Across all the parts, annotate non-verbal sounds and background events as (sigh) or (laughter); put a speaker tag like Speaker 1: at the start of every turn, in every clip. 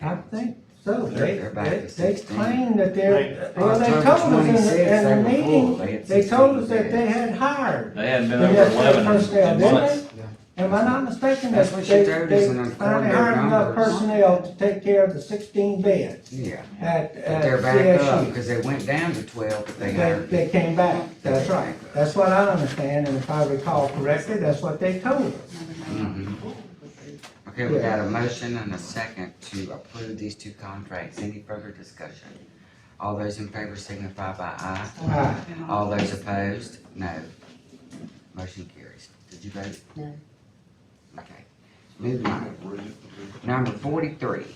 Speaker 1: I think so.
Speaker 2: They're-
Speaker 1: They,
Speaker 2: they're back
Speaker 1: they,
Speaker 2: to
Speaker 1: they
Speaker 2: 16.
Speaker 1: claim that they're,
Speaker 3: They-
Speaker 1: well, they
Speaker 2: October
Speaker 1: told us in
Speaker 2: 26,
Speaker 1: the,
Speaker 2: they
Speaker 1: in
Speaker 2: were
Speaker 1: the
Speaker 2: full.
Speaker 1: meeting,
Speaker 2: had
Speaker 1: they
Speaker 2: 16
Speaker 1: told us that
Speaker 2: there.
Speaker 1: they had hired.
Speaker 4: They hadn't been
Speaker 1: And
Speaker 4: over
Speaker 1: that's their
Speaker 4: eleven
Speaker 1: first day,
Speaker 4: in months.
Speaker 1: didn't they? Am I not mistaken that
Speaker 2: That's what she
Speaker 1: they,
Speaker 2: told us
Speaker 1: they
Speaker 2: in our
Speaker 1: finally
Speaker 2: coordinated
Speaker 1: hired enough
Speaker 2: numbers.
Speaker 1: personnel to take care of the sixteen beds
Speaker 2: Yeah,
Speaker 1: at,
Speaker 2: but
Speaker 1: at
Speaker 2: they're back up,
Speaker 1: CSU?
Speaker 2: because they went down to twelve, but they
Speaker 1: They,
Speaker 2: hired.
Speaker 1: they came back, that's
Speaker 2: They're
Speaker 1: right.
Speaker 2: back up.
Speaker 1: That's what I understand, and if I recall correctly, that's what they told us.
Speaker 2: Mhm. Okay, we got a motion and a second to approve these two contracts. Any further discussion? All those in favor signify by aye.
Speaker 1: Aye.
Speaker 2: All those opposed, no. Motion carries. Did you vote?
Speaker 5: No.
Speaker 2: Okay, moving on. Number forty-three,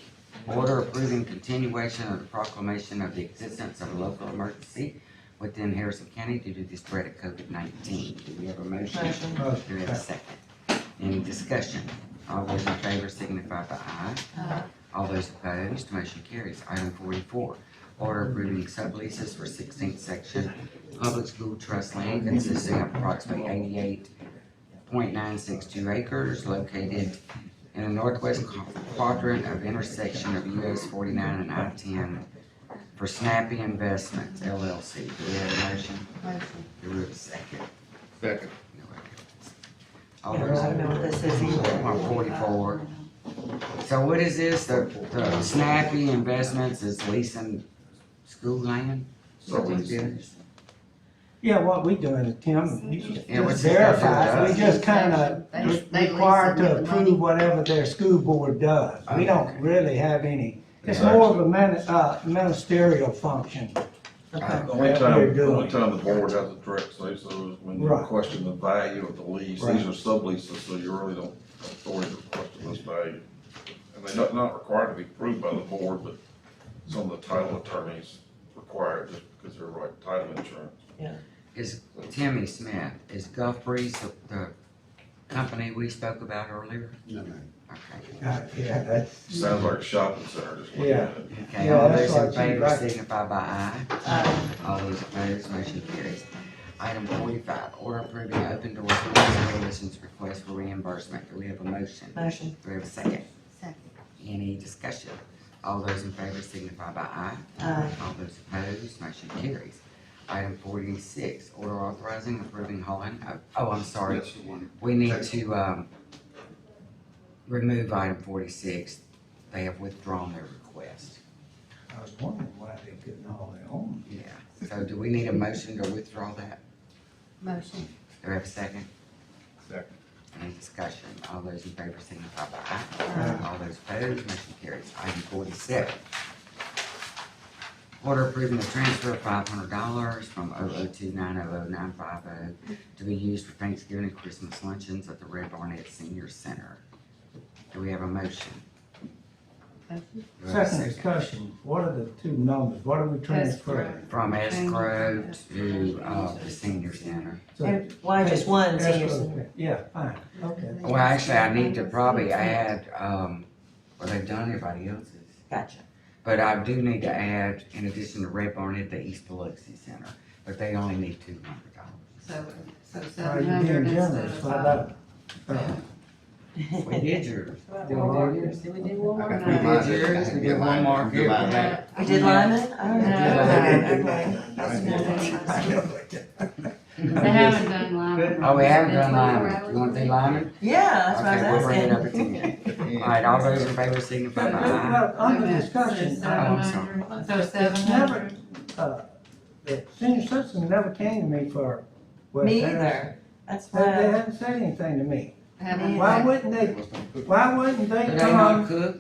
Speaker 2: order approving continuation of the proclamation of the existence of a local emergency within Harrison County due to the spread of COVID-nineteen. Do we have a motion?
Speaker 5: Motion.
Speaker 2: Do we have a second? Any discussion? All those in favor signify by aye.
Speaker 5: Aye.
Speaker 2: All those opposed, motion carries. Item forty-four, order approving subleases for sixteenth section public school trust land consisting of approximately eighty-eight point nine six two acres located in the northwest quadrant of intersection of US forty-nine and I-ten for Snappy Investments LLC. Do we have a motion?
Speaker 5: Motion.
Speaker 2: Do we have a second?
Speaker 3: Second.
Speaker 2: No, I don't. All those in
Speaker 5: know what this is either.
Speaker 2: One forty-four. So what is this, the, the Snappy Investments is leasing school land? So we did,
Speaker 1: Yeah, what we doing, Tim, you should
Speaker 2: Yeah,
Speaker 1: just
Speaker 2: what's this got to do with
Speaker 1: verify,
Speaker 2: us?
Speaker 1: we just kinda
Speaker 5: They- they lease them
Speaker 1: required
Speaker 5: with
Speaker 1: to
Speaker 5: the
Speaker 1: approve
Speaker 5: money.
Speaker 1: whatever their school board does. We don't
Speaker 2: Okay.
Speaker 1: really have any, it's
Speaker 2: Yeah.
Speaker 1: more of a mini- uh, ministerial function.
Speaker 2: Okay.
Speaker 3: The only
Speaker 1: That
Speaker 3: time,
Speaker 1: we're
Speaker 3: the
Speaker 1: doing.
Speaker 3: only time the board has a direct say so is when you
Speaker 1: Right.
Speaker 3: question the value of the lease.
Speaker 1: Right.
Speaker 3: These are subleases, so you really don't have authority to question this value. And they're not, not required to be approved by the board, but some of the title attorneys require it just because they're right title insurance.
Speaker 2: is Timmy Smith, is Gulfbreeze the, the company we spoke about earlier?
Speaker 6: No, no.
Speaker 2: Okay.
Speaker 1: Uh, Yeah, that's,
Speaker 3: Sounds like a shopping center, just looking at it.
Speaker 2: Okay,
Speaker 1: Yeah,
Speaker 2: all
Speaker 1: that's
Speaker 2: those in
Speaker 1: what I
Speaker 2: favor
Speaker 1: think, right.
Speaker 2: signify by aye.
Speaker 5: Aye.
Speaker 2: All those opposed, motion carries. Item forty-five, order approving open doors police coalition's request for reimbursement. Do we have a motion?
Speaker 5: Motion.
Speaker 2: Do we have a second?
Speaker 5: Second.
Speaker 2: Any discussion? All those in favor signify by aye.
Speaker 5: Aye.
Speaker 2: All those opposed, motion carries. Item forty-six, order authorizing approving hauling of, oh, I'm sorry.
Speaker 6: That's the one.
Speaker 2: We need to, um, remove item forty-six. They have withdrawn their request.
Speaker 1: I was wondering why they couldn't haul their own.
Speaker 2: Yeah. So do we need a motion to withdraw that?
Speaker 5: Motion.
Speaker 2: Do we have a second?
Speaker 3: Second.
Speaker 2: Any discussion? All those in favor signify by aye.
Speaker 5: Aye.
Speaker 2: All those opposed, motion carries. Item forty-seven. Order approving the transfer of five hundred dollars from 002900950 to be used for Thanksgiving and Christmas luncheons at the Red Barnett Senior Center. Do we have a motion?
Speaker 5: Motion.
Speaker 2: Do we have a
Speaker 1: Second discussion, what are the two numbers, what are we transferring?
Speaker 2: From escrow to, uh, the senior center.
Speaker 1: So-
Speaker 7: Why just one, so you're-
Speaker 1: Escrow, Yeah, fine, okay.
Speaker 2: Well, actually, I need to probably add, um, well, they've done everybody else's.
Speaker 7: Gotcha.
Speaker 2: But I do need to add, in addition to Red Barnett, the East Biloxi Center, but they only need two hundred dollars.
Speaker 5: So, so
Speaker 1: Are
Speaker 5: seven
Speaker 1: you being
Speaker 5: hundred instead
Speaker 1: generous,
Speaker 5: of
Speaker 1: why
Speaker 5: five.
Speaker 1: not? Uh,
Speaker 2: We did yours.
Speaker 5: Did we do one more?
Speaker 6: Okay.
Speaker 2: Oh, We
Speaker 5: No.
Speaker 2: did yours, we did one mark here.
Speaker 6: Goodbye.
Speaker 5: Uh,
Speaker 2: but-
Speaker 7: We did Lyman? Oh,
Speaker 5: No.
Speaker 7: okay.
Speaker 1: (laughs)
Speaker 5: They haven't done Lyman.
Speaker 2: Oh, we haven't
Speaker 5: It's
Speaker 2: done
Speaker 5: been
Speaker 2: Lyman.
Speaker 5: four
Speaker 2: You want to do
Speaker 5: hours.
Speaker 2: Lyman?
Speaker 7: Yeah, that's what
Speaker 2: Okay,
Speaker 7: I
Speaker 2: we'll
Speaker 7: was
Speaker 2: bring it up at
Speaker 7: asking.
Speaker 2: (laughs) ten. All right, all those in favor signify
Speaker 1: But,
Speaker 2: by
Speaker 1: uh,
Speaker 2: aye.
Speaker 1: well, under
Speaker 5: Okay.
Speaker 1: discussion,
Speaker 5: So
Speaker 1: I-
Speaker 2: Oh, I'm sorry.
Speaker 5: 700. So
Speaker 1: It's
Speaker 5: seven
Speaker 1: never-
Speaker 5: hundred.
Speaker 1: the senior citizen never came to me for. well,
Speaker 7: Me
Speaker 1: they-
Speaker 7: either. Uh, That's
Speaker 1: They, they
Speaker 7: why,
Speaker 1: haven't said anything to me.
Speaker 5: Haven't.
Speaker 1: Why wouldn't they, why wouldn't
Speaker 2: Do
Speaker 1: they
Speaker 2: they not
Speaker 1: come,
Speaker 2: cook?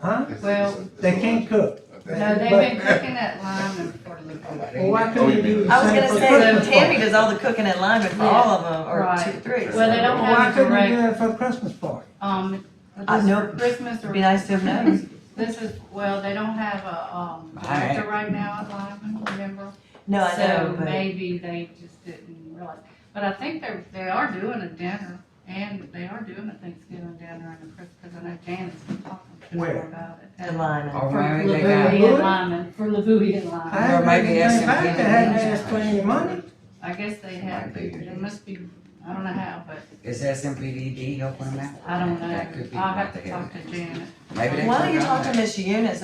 Speaker 1: huh?
Speaker 5: Well-
Speaker 1: They can't cook.
Speaker 5: No, they've been cooking at Lyman for the.
Speaker 1: Well, why
Speaker 3: Oh,
Speaker 1: couldn't
Speaker 3: you
Speaker 1: you do
Speaker 3: mean-
Speaker 1: the
Speaker 7: I was
Speaker 1: same
Speaker 7: gonna
Speaker 1: for
Speaker 7: say,
Speaker 5: (laughs)
Speaker 1: Christmas
Speaker 7: Tammy
Speaker 1: party?
Speaker 7: does all the cooking at Lyman for all of them, or two,
Speaker 5: Right.
Speaker 7: three.
Speaker 5: Well, they don't
Speaker 1: Why
Speaker 5: have a
Speaker 1: couldn't you do
Speaker 5: direct,
Speaker 1: it for a Christmas party?
Speaker 5: um,
Speaker 7: I
Speaker 5: this
Speaker 7: know.
Speaker 5: for Christmas or.
Speaker 7: It'd be nice to have known.
Speaker 5: This is, well, they don't have a, um,
Speaker 2: Alright.
Speaker 5: director right now at Lyman, remember?
Speaker 7: No, I know,
Speaker 5: So
Speaker 7: but
Speaker 5: maybe they just didn't realize, but I think they're, they are doing a dinner, and they are doing a Thanksgiving dinner and a Christmas, because I know Janice was talking to them
Speaker 1: Where?
Speaker 5: about it.
Speaker 7: the
Speaker 5: And
Speaker 7: Lyman.
Speaker 2: Or
Speaker 5: For
Speaker 2: maybe they got,
Speaker 5: Lavouille and Lyman, for Lavouille and
Speaker 1: I
Speaker 5: Lyman,
Speaker 2: Or
Speaker 1: haven't
Speaker 2: maybe
Speaker 1: heard
Speaker 2: ask
Speaker 1: anything back,
Speaker 2: them to
Speaker 1: they
Speaker 2: get
Speaker 1: hadn't
Speaker 2: it.
Speaker 1: asked for any money.
Speaker 5: I guess they have,
Speaker 2: Maybe.
Speaker 5: there must be I don't know how, but
Speaker 2: Is SMPDD helping them out?
Speaker 5: I don't
Speaker 2: That could be
Speaker 5: know.
Speaker 2: what
Speaker 5: I'll have
Speaker 2: they
Speaker 5: to talk to Janet.
Speaker 2: Maybe they
Speaker 7: Why don't you
Speaker 2: could
Speaker 7: talk
Speaker 2: run
Speaker 7: to Miss Eunice